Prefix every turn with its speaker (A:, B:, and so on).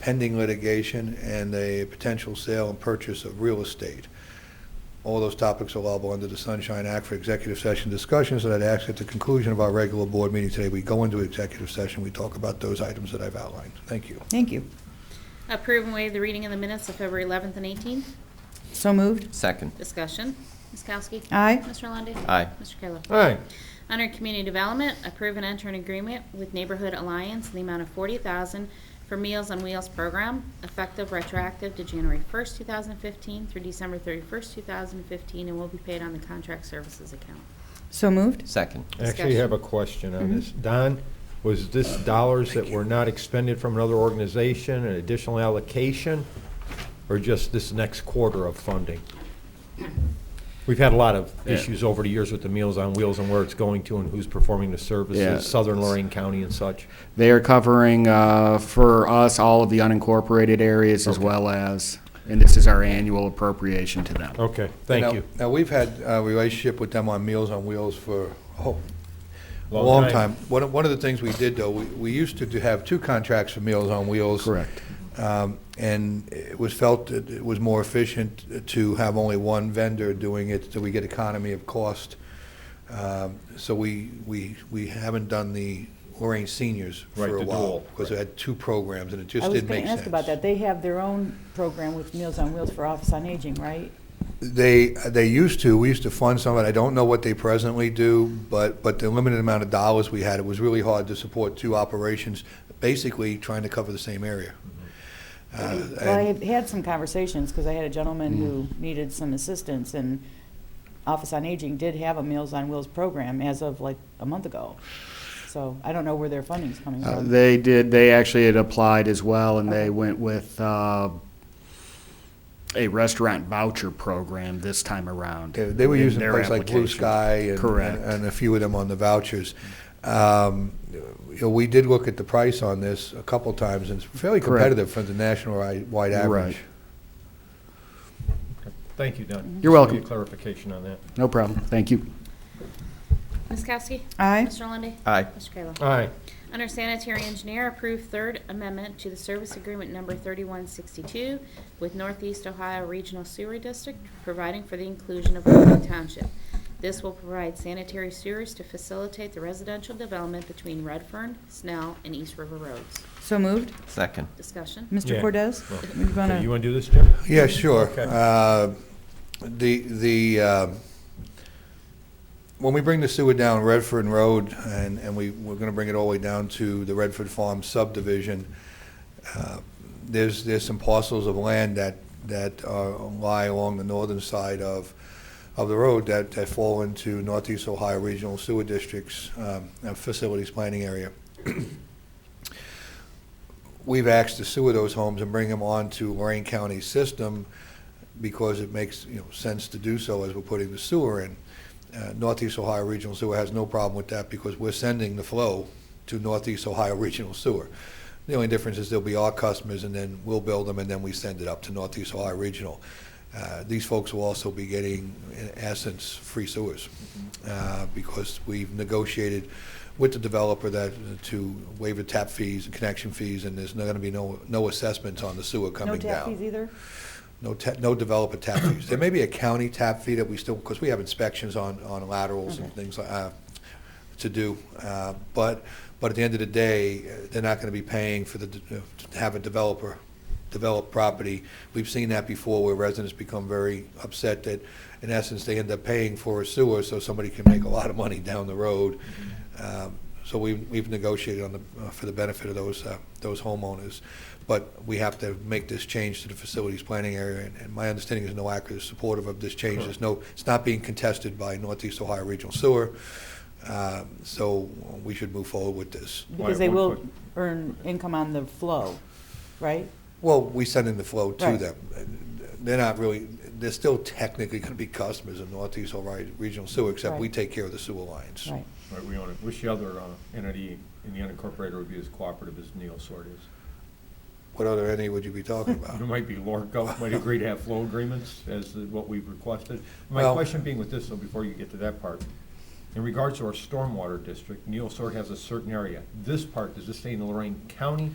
A: pending litigation, and a potential sale and purchase of real estate. All those topics are allowable under the Sunshine Act for executive session discussions, and I'd ask at the conclusion of our regular board meeting today, we go into executive session, we talk about those items that I've outlined. Thank you.
B: Thank you.
C: Approve and waive the reading of the minutes of February 11th and 18th.
B: So moved.
D: Second.
C: Discussion. Ms. Kowski?
B: Aye.
C: Mr. Lundy.
D: Aye.
C: Mr. Kayla?
E: all right,
C: Under Community Development, approve and enter an agreement with Neighborhood Alliance in the amount of 40000 for Meals on Wheels program, effective retroactive to January 1st, 2015 through December 31st, 2015, and will be paid on the contract services account.
B: So moved.
D: Second.
E: actually have a question on this.
F: Mm-hmm.
E: Don, was this
F: Oh,
E: dollars that were not expended from another organization, an additional allocation, or just this next quarter of funding? We've had a lot of
F: Yeah.
E: issues over the years with the Meals on Wheels and where it's going to and who's performing the
F: Yeah.
E: services, Southern Lorraine County and such.
F: They are covering uh, for us all of the unincorporated areas as well as, and this is our annual appropriation to them.
E: Okay, thank
A: Now-
E: you.
A: Now, we've had a relationship with them on Meals on Wheels for, oh, a
E: Long
A: long
E: time.
A: time. One of, one of the things we did, though, we, we used to do- have two contracts for Meals on Wheels.
F: Correct.
A: Um, And it was felt that it was more efficient to have only one vendor doing it, so we get economy of cost. Um, So we, we, we haven't done the Lorraine Seniors
E: Right,
A: for a
E: the
A: while.
E: dual,
A: Because it had two programs, and it
G: I
A: just
G: was
A: didn't
G: going
A: make
G: to
A: sense.
G: ask about that. They have their own program with Meals on Wheels for Office on Aging, right?
A: They, they used to, we used to fund some of it, I don't know what they presently do, but, but the limited amount of dollars we had, it was really hard to support two operations, basically trying to cover the same area. Uh,
G: Well, I
A: and-
G: have had some conversations, because I had a
A: Mm.
G: gentleman who needed some assistance, and Office on Aging did have a Meals on Wheels program as of like a month ago. So I don't know where their funding's coming
F: Uh,
G: from.
F: They did, they actually had applied as well, and they went with uh, a restaurant voucher program this time around.
A: Yeah, They were
F: in
A: using
F: their
A: places like Blue
F: application.
A: Sky and-
F: Correct.
A: and, and a few of them on the vouchers. Um, you know, we did look at the price on this a couple times, and it's fairly
F: Correct.
A: competitive for the national ri- wide
F: Right.
A: average.
E: Thank you, Don.
F: You're welcome.
E: Need Clarification on that.
F: No problem, thank you.
C: Ms. Kowski?
B: Aye.
C: Mr. Lundy.
D: Aye.
C: Mr. Kayla?
E: All right,
C: Under sanitary engineer, approve third amendment to the service agreement number 3162 with Northeast Ohio Regional Sewer District, providing for the inclusion of Oakland Township. This will provide sanitary sewers to facilitate the residential development between Redfern, Snell, and East River Roads.
B: So moved.
D: Second.
C: Discussion.
B: Mr.
E: Yeah.
B: Cordez?
E: Well,
B: You
E: Okay, you
B: wanna-
E: want to do this, Jim?
A: Yeah, sure.
E: Okay.
A: Uh, The, the, um, when we bring the sewer down Redford Road, and, and we, we're gonna bring it all the way down to the Redford Farm subdivision, uh, there's, there's some parcels of land that, that are- lie along the northern side of, of the road that, that fall into Northeast Ohio Regional Sewer District's um, uh, facilities planning area we've asked to sewer those homes and bring them onto Lorraine County's system because it makes, you know, sense to do so as we're putting the sewer in. Uh, Northeast Ohio Regional Sewer has no problem with that because we're sending the flow to Northeast Ohio Regional Sewer. The only difference is they'll be our customers and then we'll build them and then we send it up to Northeast Ohio Regional. Uh, These folks will also be getting, in essence, free sewers
G: Mm-hmm.
A: uh, because we've negotiated with the developer that, uh, to waive the tap fees and connection fees, and there's going to be no, no assessments on the sewer
G: No
A: coming
G: tap
A: down.
G: fees either?
A: No, ta- no developer tap fees. There may be a county tap fee that we still, because we have inspections on, on laterals and things like, uh, to do. Uh, But, but at the end of the day, uh, they're not going to be paying for the, de- uh, to have a developer develop property. We've seen that before where residents become very upset that, in essence, they end up paying for a sewer so somebody can make a lot of money down the road. Um, So we, we've negotiated on the, uh, for the benefit of those, uh, those homeowners. But we have to make this change to the facilities planning area, and- and my understanding is NOAC is supportive of this change. There's no, it's not being contested by Northeast Ohio Regional Sewer, Uh, so we should move forward with this.
G: Because they will earn income on the flow, right?
A: Well, we send in the flow to
G: Right.
A: them. They're not really, they're still technically going to be customers of Northeast Ohio Regional Sewer, except we
G: Right.
A: take care of the sewer lines.
G: Right.
E: Right, we want to wish the other uh, entity in the unincorporated would be as cooperative as Neosord is.
A: What other entity would you be talking about?
E: It might be Lorco, might agree to have flow agreements as the- what we've requested. My
A: Well-
E: question being with this, though, before you get to that part, in regards to our stormwater district, Neosord has a certain area. This part, does this stay in Lorraine County